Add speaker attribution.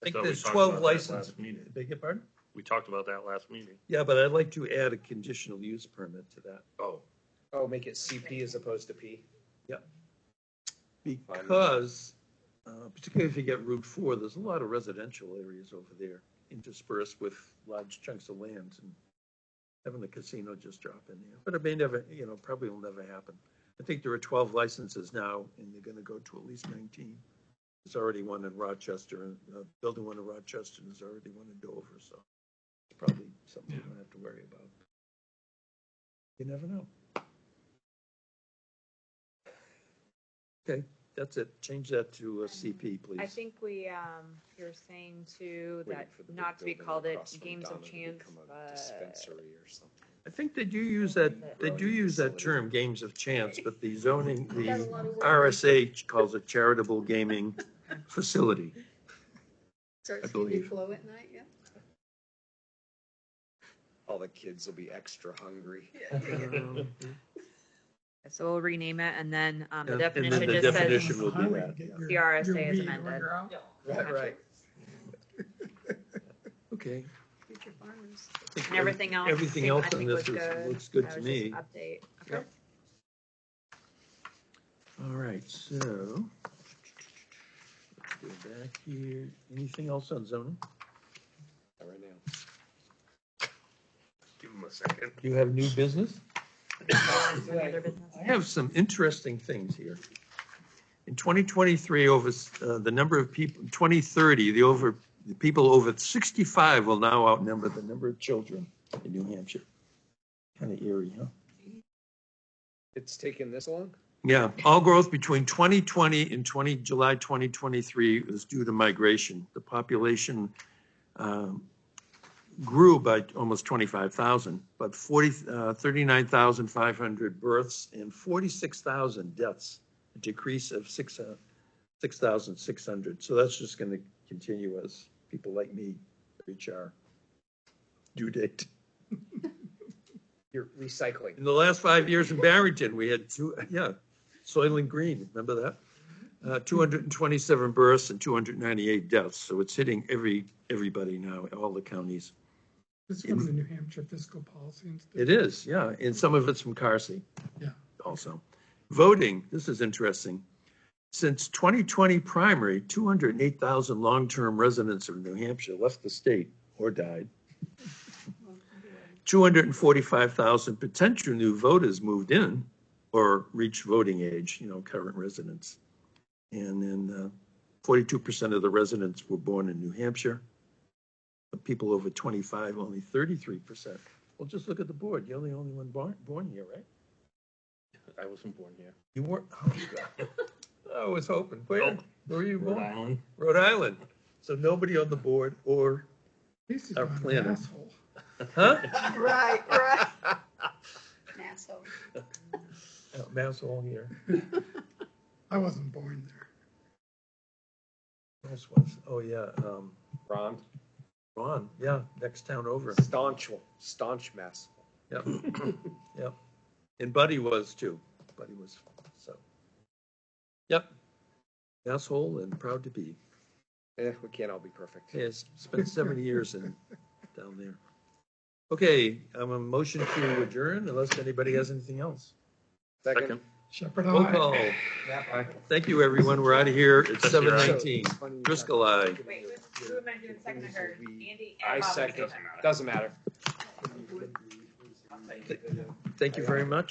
Speaker 1: I think
Speaker 2: thought we
Speaker 1: there's
Speaker 2: talked
Speaker 1: 12
Speaker 2: about that
Speaker 1: licenses.
Speaker 2: last meeting.
Speaker 1: Beg your pardon?
Speaker 2: We talked about that last meeting.
Speaker 1: Yeah, but I'd like to add a conditional use permit to that.
Speaker 2: Oh.
Speaker 3: Oh, make it CP as opposed to P?
Speaker 1: Because, uh, particularly if you get Route Four, there's a lot of residential areas over there interspersed with large chunks of land and having the casino just drop in there. But it may never, you know, probably will never happen. I think there are twelve licenses now and they're gonna go to at least nineteen. There's already one in Rochester, and, uh, building one in Rochester, and there's already one in Dover, so it's probably something we don't have to worry about. You never know. Okay, that's it. Change that to uh, CP, please.
Speaker 4: I think we, um, you're saying too,
Speaker 3: Waiting
Speaker 4: that
Speaker 3: for the big
Speaker 4: not to be
Speaker 3: building
Speaker 4: called it
Speaker 3: across from
Speaker 4: games of
Speaker 3: Donna to
Speaker 4: chance,
Speaker 3: become a
Speaker 4: but
Speaker 3: Dispensary or something.
Speaker 1: I think they do use that, they do use that term, games of chance, but the zoning, the RSH calls it charitable gaming facility. I
Speaker 5: Starts
Speaker 1: believe.
Speaker 5: keeping flow at night, yeah.
Speaker 3: All the kids will be extra hungry.
Speaker 4: so we'll rename it and then, um, the
Speaker 1: And then
Speaker 4: definition
Speaker 1: the
Speaker 4: just
Speaker 1: definition
Speaker 4: says
Speaker 1: will be that. yeah.
Speaker 4: the RSA is amended.
Speaker 3: Right, right.
Speaker 1: Okay.
Speaker 5: Future farmers.
Speaker 1: I think
Speaker 4: And everything else.
Speaker 1: Everything
Speaker 4: I
Speaker 1: else
Speaker 4: think
Speaker 1: on this
Speaker 4: was
Speaker 1: is, looks good
Speaker 4: That
Speaker 1: to
Speaker 4: was just
Speaker 1: me.
Speaker 4: an Update, okay.
Speaker 1: All right, so. Go back here. Anything else on zoning?
Speaker 3: Not Right now.
Speaker 2: Give him a second.
Speaker 1: Do you have new business?
Speaker 4: Is there any other business?
Speaker 1: I have some interesting things here. In 2023, over, uh, the number of people, 2030, the over, the people over 65 will now outnumber the number of children in New Hampshire. Kind of eerie, huh?
Speaker 3: It's taken this long?
Speaker 1: Yeah, all growth between 2020 and 20, July 2023 was due to migration. The population um, grew by almost 25,000, but 40, uh, 39,500 births and 46,000 deaths, a decrease of six, uh, 6,600. So that's just going to continue as people like me reach our due date.
Speaker 3: You're recycling.
Speaker 1: In the last five years in Barrington, we had two, yeah, Soylent Green, remember that? Uh, two hundred and twenty-seven births and two hundred and ninety-eight deaths, so it's hitting every, everybody now, all the counties.
Speaker 6: This is from the New Hampshire Fiscal Policy
Speaker 1: It
Speaker 6: Institute.
Speaker 1: is, yeah, and some of it's from Carsey.
Speaker 6: Yeah.
Speaker 1: Also. Voting, this is interesting. Since twenty twenty primary, two hundred and eight thousand long-term residents of New Hampshire left the state or died. 245,000 potential new voters moved in or reached voting age, you know, current residents. And then uh, 42% of the residents were born in New Hampshire. The people over 25, only 33%. Well, just look at the board. You're the only one born, born here, right?
Speaker 2: I wasn't born here.
Speaker 1: You weren't. Oh, God. I was hoping. Where,
Speaker 2: Nope.
Speaker 1: where were you
Speaker 2: Rhode
Speaker 1: born?
Speaker 2: Island.
Speaker 1: Rhode Island. So nobody on the board or,
Speaker 6: This is
Speaker 1: Our
Speaker 6: not an
Speaker 1: planet.
Speaker 6: asshole.
Speaker 1: huh?
Speaker 5: Right, right. Nassau.
Speaker 1: Mouse all Oh, here.
Speaker 6: I wasn't born there.
Speaker 1: Mouse was, oh, yeah. Um,
Speaker 3: Ron,
Speaker 1: Ron, yeah, next town over.
Speaker 3: staunch, staunch mess.
Speaker 1: Yep, yep. And Buddy was too. Buddy was, so. Yep. Asshole and proud to be.
Speaker 3: Eh, we can't all be perfect.
Speaker 1: Yes, spent seventy years in, down there. Okay, I'm a motion to adjourn unless anybody has anything else.
Speaker 3: Second.
Speaker 6: Shepherd,
Speaker 1: Roll
Speaker 6: I.
Speaker 1: call. Thank you, everyone. We're out of here at
Speaker 2: That's your
Speaker 1: seven
Speaker 2: eye.
Speaker 1: nineteen. Driscoll, aye.
Speaker 4: Wait, who- who amended it, second or Andy? and
Speaker 3: I
Speaker 4: Bob
Speaker 3: second.
Speaker 4: Driscoll.
Speaker 3: Doesn't matter.
Speaker 1: Thank you very much.